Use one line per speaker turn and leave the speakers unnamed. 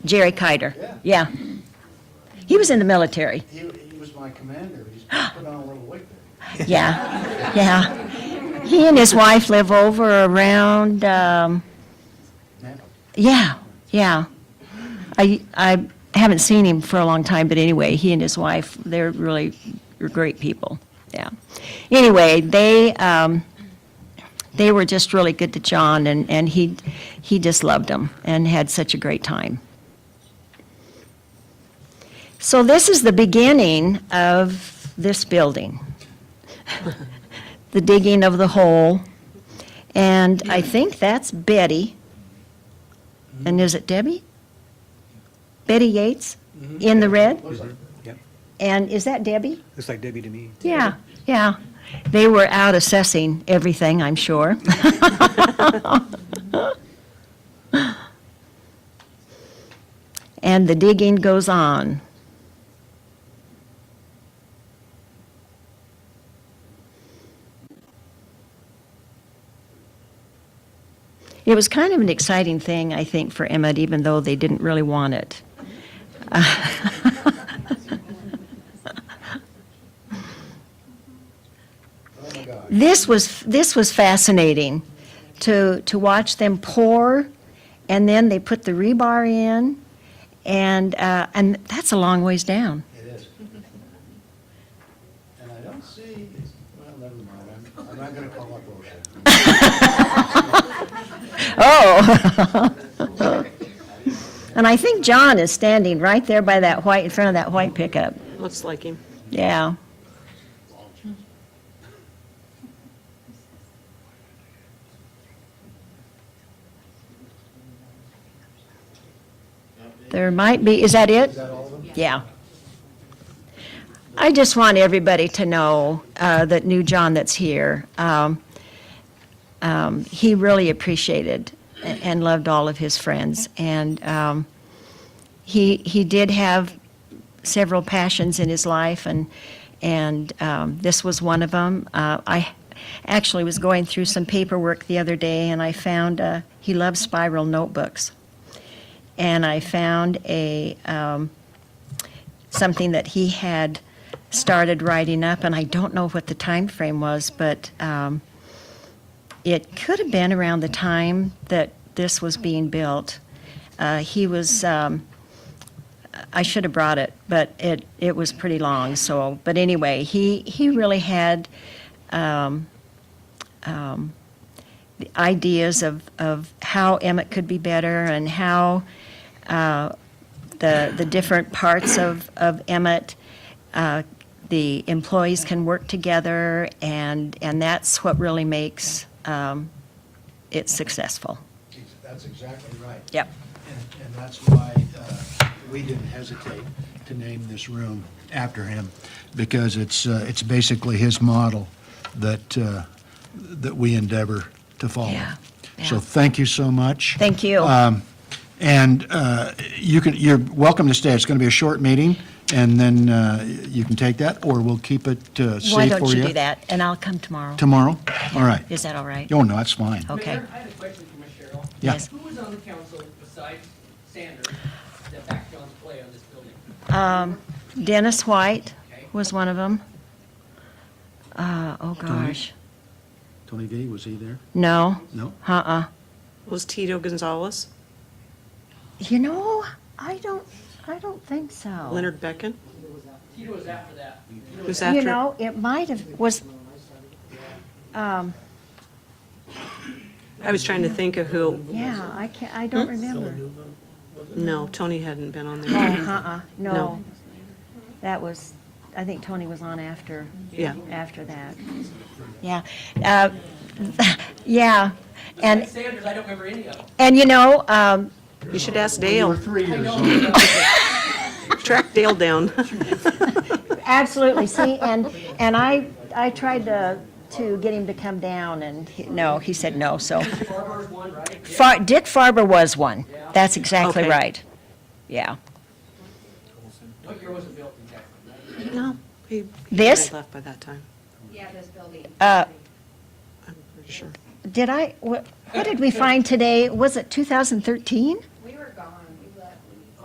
Jerry Kider.
Yeah.
Yeah. He was in the military.
He, he was my commander. He's put on a little weight there.
Yeah, yeah. He and his wife live over around, um,
Now,
yeah, yeah. I, I haven't seen him for a long time, but anyway, he and his wife, they're really they're great people, yeah. Anyway, they, um, they were just really good to John, and, and he, he just loved them and had such a great time. So this is the beginning of this building, the digging of the hole. And I think that's Betty. And is it Debbie? Betty Yates in the red?
Mm-hmm. looks like-
And is that Debbie?
Looks like Debbie to me.
Yeah, yeah. They were out assessing everything, I'm sure. And the digging goes on. It was kind of an exciting thing, I think, for Emmett, even though they didn't really want it.
Oh, my God.
this was this was fascinating to to watch them pour and then they put the rebar in and uh, and that's a long ways down
It is. And I don't see, well, never mind. I'm, I'm not going to call up OSHA.
oh and i think john is standing right there by that white in front of that white pickup
Looks like him.
yeah there might be is that it
Is that all of them?
Yeah. I just want everybody to know uh, that new John that's here, um, um, he really appreciated a- and loved all of his friends. And um, he, he did have several passions in his life, and, and um, this was one of them. Uh, I actually was going through some paperwork the other day, and I found, uh, he loves spiral notebooks. And I found a, um, something that he had started writing up, and I don't know what the time frame was, but um, it could have been around the time that this was being built. Uh, he was, um, I should have brought it, but it, it was pretty long, so, but anyway, he, he really had um, um, the ideas of, of how Emmett could be better and how uh, the, the different parts of, of Emmett. uh, The employees can work together, and, and that's what really makes um, it successful.
Ex- That's exactly right.
Yep.
And, and that's why uh, we didn't hesitate to name this room after him, because it's, uh, it's basically his model that, uh, that we endeavor to follow.
Yeah,
So
yeah.
thank you so much.
Thank you.
And uh, you can, you're welcome to stay. It's going to be a short meeting, and then uh, you can take that, or we'll keep it uh, safe for you.
Why don't you do that? And I'll come tomorrow.
Tomorrow? All right.
Is that all right?
Oh, no, that's fine.
Okay.
Mayor, I had a question for Ms. Cheryl.
Yeah.
Yes.
Who was on the council besides Sanders that backed John's play on this building?
Um, Dennis White was one of them. Oh, gosh.
Tony V, was he there?
No,
No?
uh-uh.
Was Tito Gonzalez,
You know, I don't, I don't think so.
Oh.
Leonard Beckon?
Tito was after that.
Who's
You
after?
know, it might have, was, um,
I was trying to think of who,
yeah, I can't, I
Hmm?
don't remember.
no, Tony hadn't been on
Oh,
there.
uh-uh, no.
No.
That was, I think Tony was on after,
Yeah.
after that. Yeah, uh, yeah, and,
Sanders, I don't remember any of them.
and you know, um,
You should ask Dale,
three years
track Dale down.
absolutely, see, and, and I, I tried to, to get him to come down, and, he- no, he said no, so.
Farmer's one, right?
Far, Dick Farber was one, that's exactly
Okay.
right, yeah.
What year was it built exactly?
No, he. he
This?
had Left by that time,
Yeah, this building.
Uh,
I'm pretty sure.
Did I, what, what did we find today? Was it 2013?